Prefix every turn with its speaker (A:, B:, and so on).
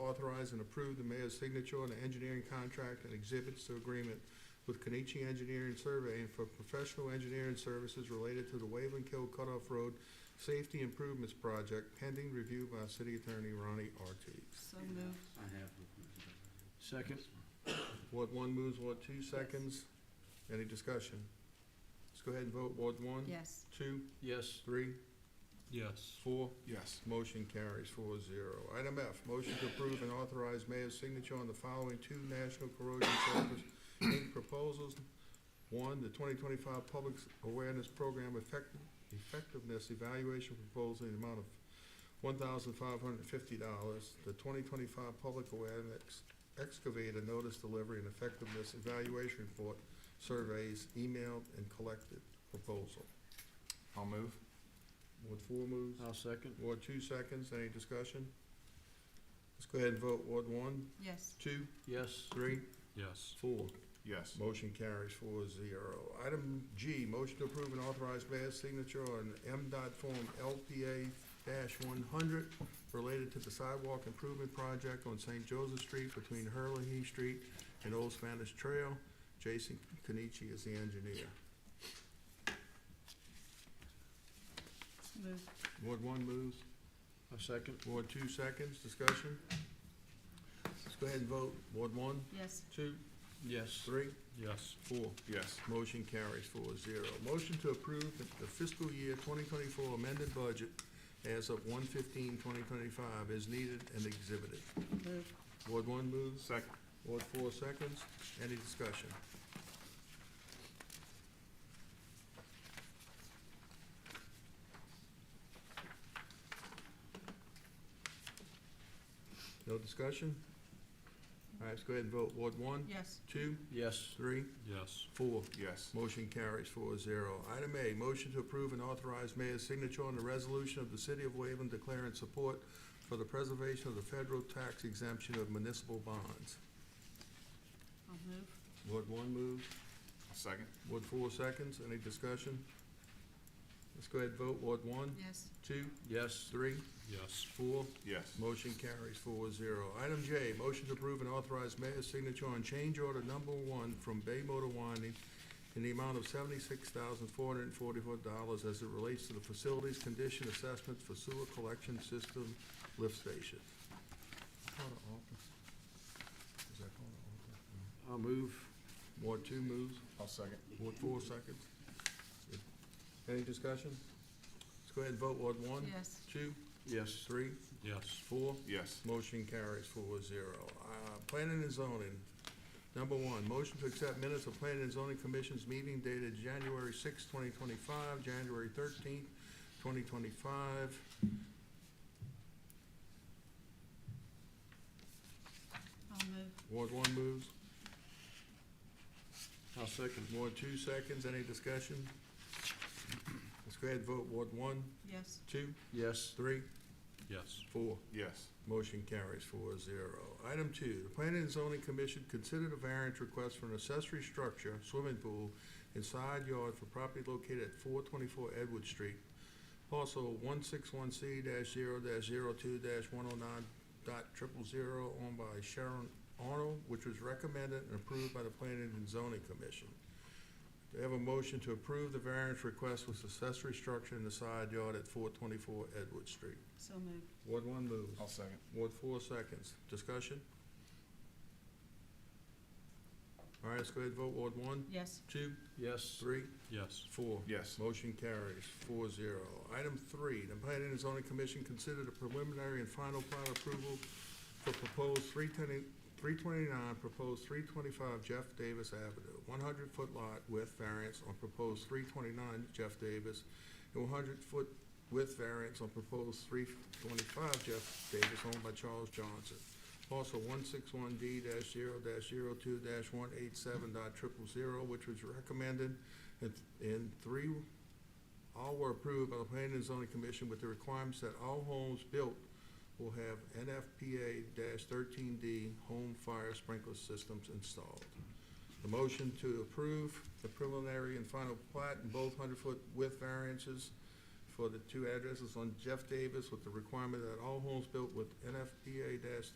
A: authorize and approve the mayor's signature on the engineering contract and exhibits to agreement with Kenichi Engineering Surveying for professional engineering services related to the Waveland Kill Cutoff Road Safety Improvements Project pending review by City Attorney Ronnie Artie.
B: So moved.
C: I have looked into that.
D: Second.
A: Ward one moves, Ward two seconds. Any discussion? Let's go ahead and vote. Ward one?
B: Yes.
A: Two,
D: Yes.
A: three,
D: Yes.
A: four?
C: Yes.
A: Motion carries four zero. Item F, motion to approve and authorize mayor's signature on the following two National Corrosion Service Inc. proposals. One, the twenty twenty-five Public Awareness Program Effect- Effectiveness Evaluation Proposal in the amount of one thousand five hundred and fifty dollars. The twenty twenty-five Public Awareness Excavator Notice Delivery and Effectiveness Evaluation Report Surveys Emailed and Collected Proposal.
C: I'll move.
A: Ward four moves.
D: I'll second.
A: Ward two seconds, any discussion? Let's go ahead and vote, Ward one,
B: Yes.
A: two,
D: Yes.
A: three,
D: Yes.
A: four.
C: Yes.
A: Motion carries four zero. Item G, motion to approve and authorize mayor's signature on MDOT form LPA one hundred related to the sidewalk improvement project on St. Joseph Street between Hurley Street and Old Spanish Trail. Jason Kenichi is the engineer.
B: Moved.
A: Ward one moves.
D: I'll second.
A: Ward two seconds, discussion? Let's go ahead and vote, Ward one,
B: Yes.
A: two,
D: Yes.
A: Three,
D: Yes.
A: four.
C: Yes.
A: Motion carries four zero. Motion to approve the fiscal year twenty twenty-four amended budget as of 115-2025 is needed and exhibited.
B: Moved.
A: Ward one moves,
C: Second.
A: Ward four seconds. Any discussion? No discussion? All right, let's go ahead and vote. Ward one,
B: Yes.
A: two,
D: Yes.
A: three,
D: Yes.
A: four.
C: Yes.
A: Motion carries four zero. Item A, motion to approve and authorize mayor's signature on the resolution of the city of Waveland declaring support for the preservation of the federal tax exemption of municipal bonds.
B: I'll move.
A: Ward one moves.
C: Second.
A: Ward four seconds. Any discussion? Let's go ahead and vote. Ward one,
B: Yes.
A: two,
D: Yes.
A: three,
D: Yes.
A: four.
C: Yes.
A: Motion carries four zero. Item J, motion to approve and authorize mayor's signature on change order number one from Bay Motor Winding in the amount of seventy-six thousand four hundred and forty-four dollars as it relates to the facilities condition assessment for sewer collection system lift station.
D: I'll move.
A: Ward two moves,
C: I'll second.
A: Ward four seconds. Any discussion? Let's go ahead and vote. Ward one?
B: Yes.
A: Two,
D: Yes.
A: three,
D: Yes.
A: four?
C: Yes.
A: Motion carries four zero. Uh, Planning and zoning, number one, motion to accept minutes of planning and zoning commission's meeting dated January sixth, twenty twenty-five, January thirteenth, twenty twenty-five.
B: I'll move.
A: Ward one moves,
D: I'll second.
A: Ward two seconds, any discussion? Let's go ahead and vote, Ward one,
B: Yes.
A: two,
D: Yes.
A: three,
D: Yes.
A: four.
C: Yes.
A: Motion carries four zero. Item two, the Planning and Zoning Commission considered a variance request for an accessory structure, swimming pool, and side yard for property located at four twenty-four Edward Street, parcel one six one C dash zero dash zero two dash one oh nine dot triple zero, owned by Sharon Arnold, which was recommended and approved by the Planning and Zoning Commission. Do I have a motion to approve the variance request with accessory structure in the side yard at four twenty-four Edward Street?
B: So moved.
A: Ward one moves.
C: I'll second.
A: Ward four seconds. Discussion? All right, let's go ahead and vote. Ward one,
B: Yes.
A: two,
D: Yes.
A: three,
D: Yes.
A: four.
C: Yes.
A: Motion carries four zero. Item three, the Planning and Zoning Commission considered a preliminary and final plat approval for proposed three twenty, three twenty-nine, proposed three twenty-five Jeff Davis Avenue, one hundred foot lot width variance on proposed three twenty-nine Jeff Davis, and one hundred foot width variance on proposed three twenty-five Jeff Davis owned by Charles Johnson. Also one six one D dash zero dash zero two dash one eight seven dot triple zero, which was recommended, and, and three, all were approved by the Planning and Zoning Commission with the requirements that all homes built will have NFPA thirteen D home fire sprinkler systems installed. The motion to approve the preliminary and final plat and both hundred-foot width variances for the two addresses on Jeff Davis with the requirement that all homes built with NFPA